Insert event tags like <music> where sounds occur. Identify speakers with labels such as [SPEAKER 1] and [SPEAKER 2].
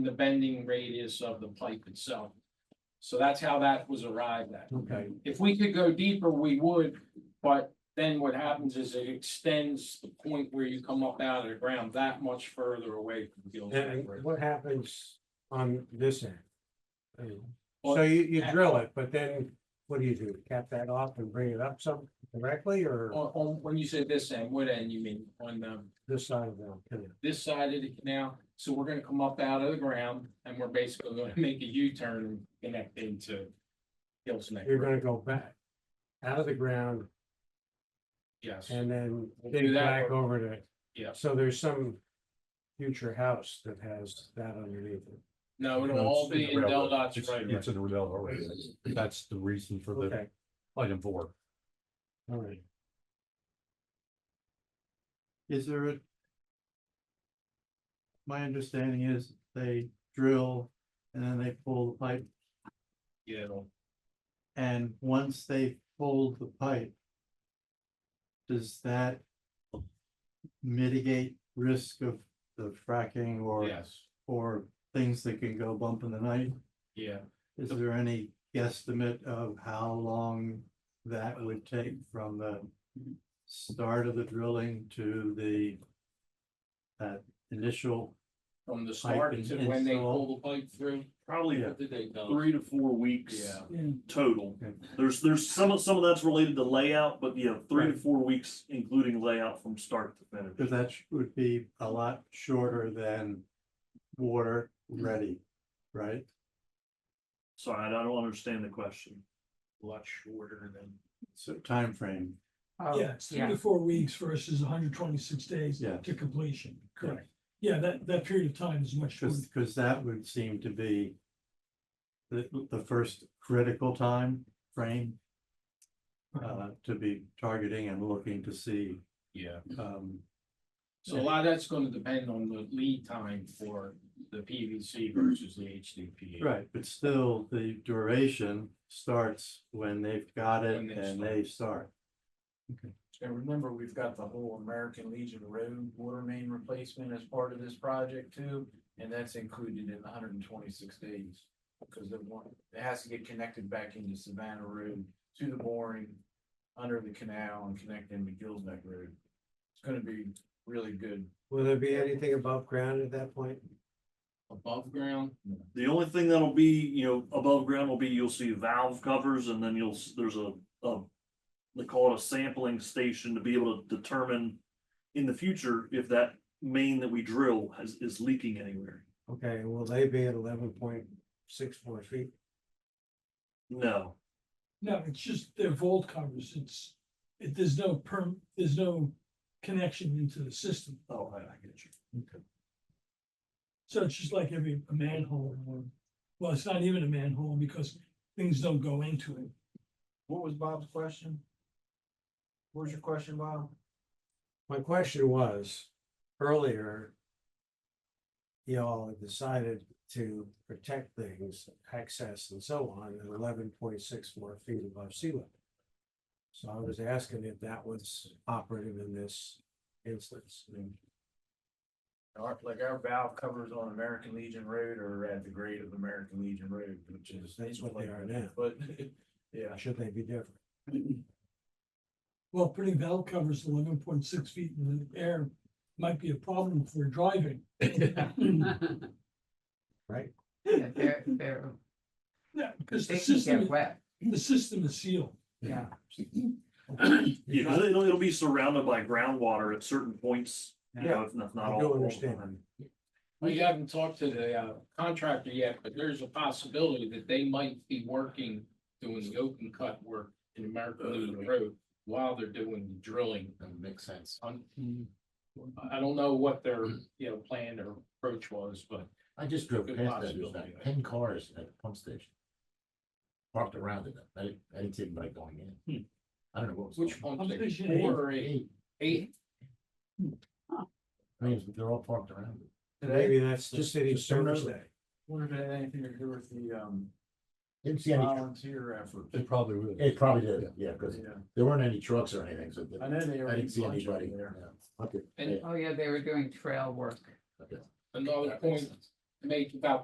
[SPEAKER 1] the bending radius of the pipe itself. So that's how that was arrived at.
[SPEAKER 2] Okay,
[SPEAKER 1] If we could go deeper, we would, but then what happens is it extends the point where you come up out of the ground that much further away from Gill's Neck
[SPEAKER 2] and
[SPEAKER 1] Bridge.
[SPEAKER 2] what happens on this end? I mean, So you, you drill it, but then what do you do? Cap that off and bring it up some directly or
[SPEAKER 1] On, on- when you say this end, what end you mean? On the,
[SPEAKER 2] this side of the canal?
[SPEAKER 1] this side of the canal, so we're gonna come up out of the ground and we're basically gonna make a U-turn and connect into Gill's Neck
[SPEAKER 2] You're
[SPEAKER 1] Bridge,
[SPEAKER 2] gonna go back out of the ground
[SPEAKER 1] yes,
[SPEAKER 2] and then
[SPEAKER 1] We'll do
[SPEAKER 2] dig
[SPEAKER 1] that
[SPEAKER 2] back over to,
[SPEAKER 1] yes.
[SPEAKER 2] so there's some future house that has that underneath it.
[SPEAKER 1] No, it'll
[SPEAKER 3] No,
[SPEAKER 1] all
[SPEAKER 3] it's in
[SPEAKER 1] be
[SPEAKER 3] the
[SPEAKER 1] in Del
[SPEAKER 3] railroad.
[SPEAKER 1] Dot's
[SPEAKER 3] It's-
[SPEAKER 1] right.
[SPEAKER 3] It's in the rail already. That's- That's the reason for the
[SPEAKER 2] Okay,
[SPEAKER 3] item four.
[SPEAKER 2] all right.
[SPEAKER 4] Is there a? My understanding is they drill and then they pull the pipe,
[SPEAKER 1] Yeah, it'll-
[SPEAKER 4] and once they pull the pipe. Does that? Mitigate risk of the fracking or,
[SPEAKER 1] yes,
[SPEAKER 4] or things that can go bump in the night?
[SPEAKER 1] yeah.
[SPEAKER 4] Is there any guesstimate of how long that would take from the start of the drilling to the that initial,
[SPEAKER 1] From the start
[SPEAKER 4] and-
[SPEAKER 1] to
[SPEAKER 4] and
[SPEAKER 1] when they
[SPEAKER 4] so on.
[SPEAKER 1] pull the pipe through,
[SPEAKER 5] Probably
[SPEAKER 4] Yeah.
[SPEAKER 1] what did they go?
[SPEAKER 5] three to four weeks
[SPEAKER 1] Yeah,
[SPEAKER 5] total.
[SPEAKER 4] Okay.
[SPEAKER 5] There's, there's some, of some of that's related to layout, but yeah, three to four weeks, including layout from start to finish.
[SPEAKER 4] because that sh- would be a
[SPEAKER 6] Mm-hmm.
[SPEAKER 4] lot shorter than water
[SPEAKER 6] Mm-hmm.
[SPEAKER 4] ready, right?
[SPEAKER 5] Sorry, I don't understand the question.
[SPEAKER 1] a lot shorter than.
[SPEAKER 4] So time frame.
[SPEAKER 7] Yeah, it's Uh, three to four weeks versus hundred twenty-six days
[SPEAKER 4] Yeah.
[SPEAKER 7] to completion, correct. Yeah, that, that period of time is much shorter.
[SPEAKER 4] Because, because that would seem to be the, the first critical time frame uh,
[SPEAKER 6] Uh-huh.
[SPEAKER 4] to be targeting and looking to see,
[SPEAKER 1] Yeah,
[SPEAKER 6] Mm-hmm.
[SPEAKER 4] um,
[SPEAKER 1] so a lot of that's gonna depend on the lead time for the PVC versus the HDPE.
[SPEAKER 4] Right, but still, the duration starts when they've got
[SPEAKER 1] When
[SPEAKER 4] it
[SPEAKER 1] they
[SPEAKER 4] and they start.
[SPEAKER 8] And remember, we've got the whole American Legion Road water main replacement as part of this project too, and that's included in hundred and twenty-six days. Because they want, it has to get connected back into Savannah Road to the mooring, under the canal and connect into Gill's Neck Road. It's gonna be really good.
[SPEAKER 2] Will there be anything above ground at that point?
[SPEAKER 1] Above ground,
[SPEAKER 5] The only thing that'll be, you know, above ground will be, you'll see valve covers and then you'll, s- there's a, a. They call it a sampling station to be able to determine in the future if that main that we drill has, is leaking anywhere.
[SPEAKER 2] Okay, will they be at eleven point six four feet?
[SPEAKER 5] No,
[SPEAKER 7] No, it's just their vault covers, it's, it, there's no perm, there's no connection into the system.
[SPEAKER 5] oh, I, I get you.
[SPEAKER 7] So it's just like every a manhole or, well, it's not even a manhole because things don't go into it.
[SPEAKER 8] What was Bob's question? What was your question, Bob?
[SPEAKER 2] My question was, earlier. Y'all had decided to protect things, access and so on, at eleven point six four feet above sea level. So I was asking if that was operative in this instance.
[SPEAKER 8] Our, like our valve covers on American Legion Road are at the grade of American Legion Road, which is.
[SPEAKER 2] That's what they are now.
[SPEAKER 8] But, yeah.
[SPEAKER 2] Should they be different?
[SPEAKER 7] Well, putting valve covers eleven point six feet in the air might be a problem for driving.
[SPEAKER 2] Right.
[SPEAKER 9] Yeah, They're, they're,
[SPEAKER 7] Yeah, because the
[SPEAKER 9] they can
[SPEAKER 7] system,
[SPEAKER 9] get wet,
[SPEAKER 7] the system is sealed. <clears throat>
[SPEAKER 9] yeah.
[SPEAKER 5] Yeah, 'cause it'll, it'll be surrounded by groundwater at certain points, you know, if not, not
[SPEAKER 2] I
[SPEAKER 5] all.
[SPEAKER 2] do
[SPEAKER 5] all the
[SPEAKER 2] understand.
[SPEAKER 5] time.
[SPEAKER 1] we haven't talked to the uh, contractor yet, but there's a possibility that they might be working, doing the open cut work in American Legion Road while they're doing the drilling. That makes sense. I don't know what their, you know, plan or approach was, but
[SPEAKER 6] I just drove
[SPEAKER 1] Good
[SPEAKER 6] past that,
[SPEAKER 1] possibility.
[SPEAKER 6] there's like ten cars at the pump station. Parked around it, I didn't, I didn't see anybody going
[SPEAKER 8] Hmm.
[SPEAKER 6] in. I don't know what was.
[SPEAKER 1] which
[SPEAKER 6] going on.
[SPEAKER 1] pump
[SPEAKER 7] I'm
[SPEAKER 1] station?
[SPEAKER 7] thinking
[SPEAKER 1] Four or eight?
[SPEAKER 6] Eight,
[SPEAKER 1] Eight,
[SPEAKER 6] I mean, they're all parked around it.
[SPEAKER 2] Maybe that's the
[SPEAKER 6] Just-
[SPEAKER 2] city's
[SPEAKER 6] just don't know
[SPEAKER 2] service
[SPEAKER 6] that.
[SPEAKER 2] day.
[SPEAKER 8] Wonder if it had anything to do with the um
[SPEAKER 6] Didn't see any,
[SPEAKER 8] volunteer effort.
[SPEAKER 3] It probably will.
[SPEAKER 6] it probably did, yeah, because
[SPEAKER 8] Uh, Yeah.
[SPEAKER 6] there weren't any trucks or anything, so.
[SPEAKER 8] I know they were.
[SPEAKER 6] I didn't see
[SPEAKER 8] bunch over
[SPEAKER 6] anybody.
[SPEAKER 8] there.
[SPEAKER 6] yeah. Okay,
[SPEAKER 1] And-
[SPEAKER 6] yeah,
[SPEAKER 9] Oh, yeah, they were doing trail work.
[SPEAKER 6] okay.
[SPEAKER 1] another
[SPEAKER 6] That makes
[SPEAKER 1] point
[SPEAKER 6] sense.
[SPEAKER 1] make about